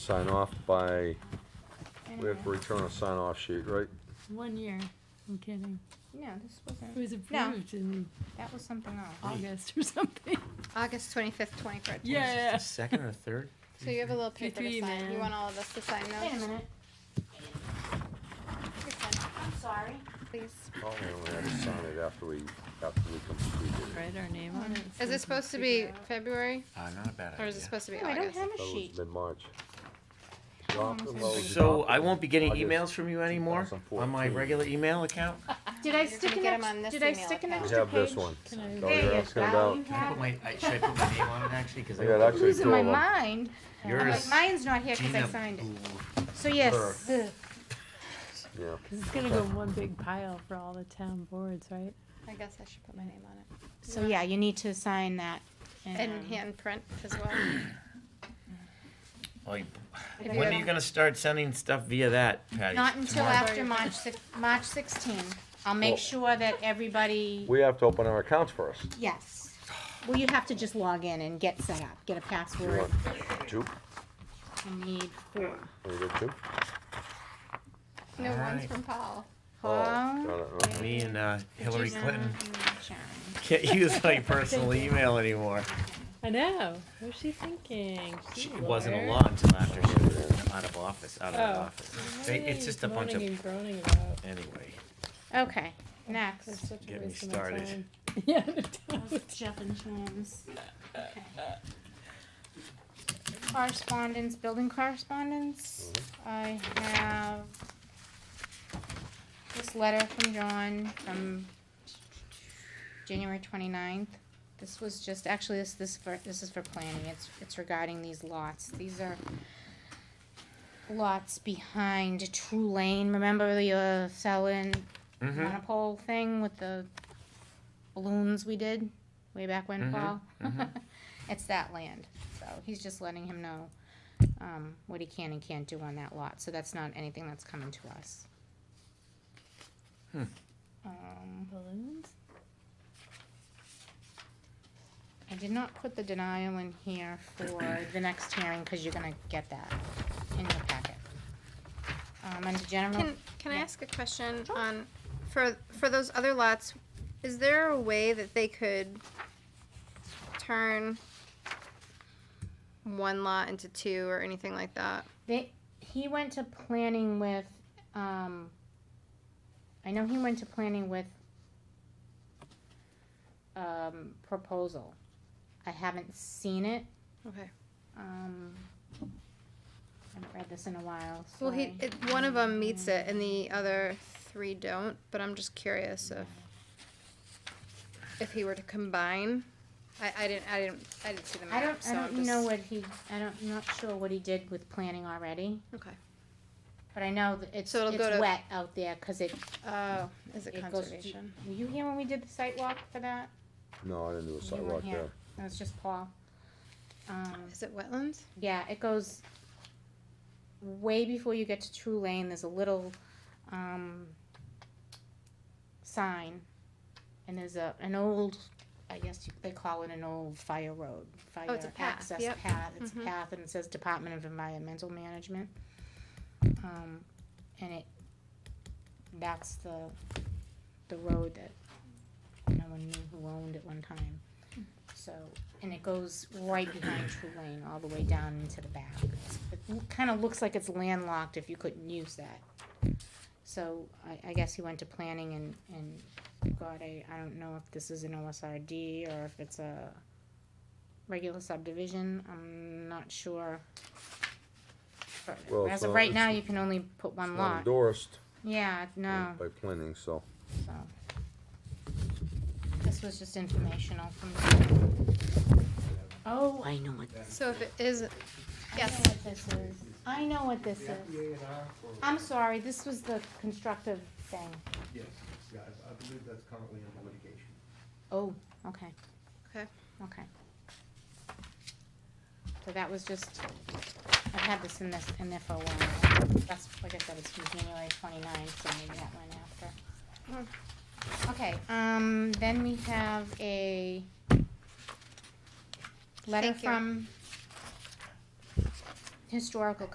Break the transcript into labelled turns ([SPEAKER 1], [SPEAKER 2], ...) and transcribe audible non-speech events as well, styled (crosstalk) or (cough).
[SPEAKER 1] sign off by, we have to
[SPEAKER 2] Anyway.
[SPEAKER 1] return a sign off sheet, right?
[SPEAKER 3] One year. I'm kidding.
[SPEAKER 2] No, this
[SPEAKER 3] It
[SPEAKER 2] wasn't.
[SPEAKER 3] was approved in
[SPEAKER 2] That was something else.
[SPEAKER 3] August or something.
[SPEAKER 2] August twenty-fifth, twenty thirteen.
[SPEAKER 3] Yeah.
[SPEAKER 4] the second or third?
[SPEAKER 5] So you have a little paper
[SPEAKER 3] three,
[SPEAKER 5] to sign.
[SPEAKER 3] man.
[SPEAKER 5] You want all of us to sign those?
[SPEAKER 2] Wait a minute,
[SPEAKER 5] You can,
[SPEAKER 2] I'm sorry.
[SPEAKER 5] Please.
[SPEAKER 1] Oh, we only have to sign it after we, after we complete it.
[SPEAKER 3] Write our name on it.
[SPEAKER 5] Is it supposed to be February
[SPEAKER 4] Uh, not a bad
[SPEAKER 5] or is it
[SPEAKER 4] idea.
[SPEAKER 5] supposed to be
[SPEAKER 2] No, I don't
[SPEAKER 5] August?
[SPEAKER 2] have a
[SPEAKER 1] That was
[SPEAKER 2] sheet.
[SPEAKER 1] mid-March.
[SPEAKER 2] long
[SPEAKER 1] Doc-
[SPEAKER 2] is it?
[SPEAKER 1] well, we
[SPEAKER 4] So
[SPEAKER 1] adopted
[SPEAKER 4] I won't be getting
[SPEAKER 1] August
[SPEAKER 4] emails from you anymore on my
[SPEAKER 1] 2014.
[SPEAKER 4] regular email account?
[SPEAKER 2] Did I
[SPEAKER 5] You're
[SPEAKER 2] stick
[SPEAKER 5] gonna
[SPEAKER 2] an
[SPEAKER 5] get 'em on
[SPEAKER 2] extra,
[SPEAKER 5] this
[SPEAKER 2] did I
[SPEAKER 5] email
[SPEAKER 2] stick an
[SPEAKER 5] account.
[SPEAKER 1] We
[SPEAKER 2] extra page?
[SPEAKER 1] have this one.
[SPEAKER 3] Can I-
[SPEAKER 1] Oh,
[SPEAKER 2] There
[SPEAKER 1] you're
[SPEAKER 2] you
[SPEAKER 1] asking
[SPEAKER 2] go, you
[SPEAKER 1] about,
[SPEAKER 4] Can I
[SPEAKER 2] have
[SPEAKER 4] put
[SPEAKER 2] it.
[SPEAKER 4] my, I- should I put my name on it actually? Cause I.
[SPEAKER 1] I got
[SPEAKER 4] don't-
[SPEAKER 1] actually
[SPEAKER 2] Losing
[SPEAKER 1] two
[SPEAKER 2] my
[SPEAKER 1] of them.
[SPEAKER 2] mind. I'm
[SPEAKER 4] Yours,
[SPEAKER 2] like, mine's not here because I
[SPEAKER 4] Gina
[SPEAKER 2] signed it.
[SPEAKER 4] Blue.
[SPEAKER 2] So yes.
[SPEAKER 4] Blur.
[SPEAKER 1] yeah.
[SPEAKER 3] Because it's going to go in one big pile for all the town boards, right?
[SPEAKER 5] I guess I should put my name on it.
[SPEAKER 2] So yeah, Uh, you need to sign that.
[SPEAKER 5] And
[SPEAKER 2] um,
[SPEAKER 5] hand print as well.
[SPEAKER 4] Like,
[SPEAKER 5] If you're
[SPEAKER 4] When are
[SPEAKER 5] gonna-
[SPEAKER 4] you gonna start sending stuff via that, Patty?
[SPEAKER 2] Not until
[SPEAKER 4] Tomorrow?
[SPEAKER 2] after March six, March sixteen. I'll make
[SPEAKER 1] Well-
[SPEAKER 2] sure that everybody,
[SPEAKER 1] We have to open our accounts first.
[SPEAKER 2] yes. Well, you have to just log in and get set up, get a
[SPEAKER 1] You
[SPEAKER 2] password.
[SPEAKER 1] want two?
[SPEAKER 2] You need four.
[SPEAKER 1] We good two?
[SPEAKER 5] No,
[SPEAKER 4] All
[SPEAKER 5] one's
[SPEAKER 4] right.
[SPEAKER 5] from Paul.
[SPEAKER 2] Paul,
[SPEAKER 1] Oh, Got it, okay.
[SPEAKER 4] Me and, uh, Hillary
[SPEAKER 2] Gina,
[SPEAKER 4] Clinton
[SPEAKER 2] and Sharon.
[SPEAKER 4] can't use my personal email anymore.
[SPEAKER 3] I know. What was she thinking?
[SPEAKER 4] She
[SPEAKER 3] a
[SPEAKER 4] wasn't
[SPEAKER 3] lawyer.
[SPEAKER 4] along until after she was out of office, out of the
[SPEAKER 3] Oh.
[SPEAKER 4] office.
[SPEAKER 3] What
[SPEAKER 4] They-
[SPEAKER 3] are
[SPEAKER 4] It's
[SPEAKER 3] they
[SPEAKER 4] just a bunch of,
[SPEAKER 3] moaning and groaning about?
[SPEAKER 4] anyway,
[SPEAKER 2] Okay,
[SPEAKER 3] That's
[SPEAKER 2] next.
[SPEAKER 3] such a
[SPEAKER 4] Get me
[SPEAKER 3] waste of my
[SPEAKER 4] started.
[SPEAKER 3] time. (laughs) Yeah.
[SPEAKER 2] (laughs) Jeff and James. Correspondence, building correspondence. I have this letter from John from January 29th. This was just, actually, this, this for, this is for planning. It's, it's regarding these lots. These are lots behind True Lane. Remember the, uh, selling
[SPEAKER 4] mhm,
[SPEAKER 2] monopole thing with the balloons we did way back
[SPEAKER 4] Mhm,
[SPEAKER 2] when, Paul.
[SPEAKER 4] mhm.
[SPEAKER 2] (laughs) it's that land. So he's just letting him know um, what he can and can't do on that lot. So that's not anything that's coming to us.
[SPEAKER 4] Hmm.
[SPEAKER 2] Um,
[SPEAKER 3] Balloons?
[SPEAKER 2] I did not put the denial in here for the next hearing because you're going to get that in your packet. Um, under general,
[SPEAKER 5] Can, can I
[SPEAKER 2] Yeah.
[SPEAKER 5] ask a question on, for, for those other lots, is there a way that they could turn one lot into two or anything like that?
[SPEAKER 2] They, he went to planning with, um, I know he went to planning with, um, proposal. I haven't seen it,
[SPEAKER 5] Okay.
[SPEAKER 2] um, I haven't read this in a while, so.
[SPEAKER 5] Well, he,
[SPEAKER 2] I-
[SPEAKER 5] it, one of them meets it and the other three don't, but I'm just curious if, if he were to combine, I, I didn't, I didn't, I didn't see the
[SPEAKER 2] I
[SPEAKER 5] map,
[SPEAKER 2] don't, I
[SPEAKER 5] so I'm
[SPEAKER 2] don't know
[SPEAKER 5] just,
[SPEAKER 2] what he, I don't, I'm not sure what he did with planning already,
[SPEAKER 5] okay.
[SPEAKER 2] but I know that it's,
[SPEAKER 5] So it'll go
[SPEAKER 2] it's
[SPEAKER 5] to-
[SPEAKER 2] wet out there, cause it,
[SPEAKER 5] Oh, is it
[SPEAKER 2] it goes. to-
[SPEAKER 5] conservation?
[SPEAKER 2] Were you here when we did the site walk for that?
[SPEAKER 1] No, I didn't do a
[SPEAKER 2] You
[SPEAKER 1] sidewalk
[SPEAKER 2] weren't
[SPEAKER 1] there.
[SPEAKER 2] here, it was just Paul. Um.
[SPEAKER 5] Is it wetlands?
[SPEAKER 2] Yeah, it goes way before you get to True Lane. There's a little um, sign, and there's a an old, I guess you, they call it an old fire road, fire
[SPEAKER 5] Oh, it's a path,
[SPEAKER 2] access
[SPEAKER 5] yep.
[SPEAKER 2] path. It's
[SPEAKER 5] Mhm.
[SPEAKER 2] a path, and it says Department of Environmental Management. Um, and it that's the the road that no one knew who owned at one time.
[SPEAKER 5] Hmm.
[SPEAKER 2] So, and it goes right behind True Lane, all the way down into the back. It kind of looks like it's landlocked if you couldn't use that. So I, I guess he went to planning and, and God, I, I don't know if this is an OSRD or if it's a regular subdivision. I'm not sure. But
[SPEAKER 1] Well,
[SPEAKER 2] as
[SPEAKER 1] it's
[SPEAKER 2] of
[SPEAKER 1] not-
[SPEAKER 2] right now,
[SPEAKER 1] it's-
[SPEAKER 2] you can only put
[SPEAKER 1] It's
[SPEAKER 2] one
[SPEAKER 1] not
[SPEAKER 2] lot.
[SPEAKER 1] endorsed
[SPEAKER 2] Yeah, no,
[SPEAKER 1] by planning, so.
[SPEAKER 2] so. This was just informational from. Oh, I know what this,
[SPEAKER 5] So if it is,
[SPEAKER 2] I know
[SPEAKER 5] yes,
[SPEAKER 2] what this is. I know what this is.
[SPEAKER 6] and R for?
[SPEAKER 2] I'm sorry, this was the constructive thing.
[SPEAKER 6] Yes, yeah, I I believe that's currently under litigation.
[SPEAKER 2] Oh, okay.
[SPEAKER 5] Okay.
[SPEAKER 2] Okay. So that was just, I've had this in this, in there for a while. That's, like I said, it's from January twenty-ninth, so maybe that went after. Okay, um, then we have a letter
[SPEAKER 5] Thank you.
[SPEAKER 2] from Historical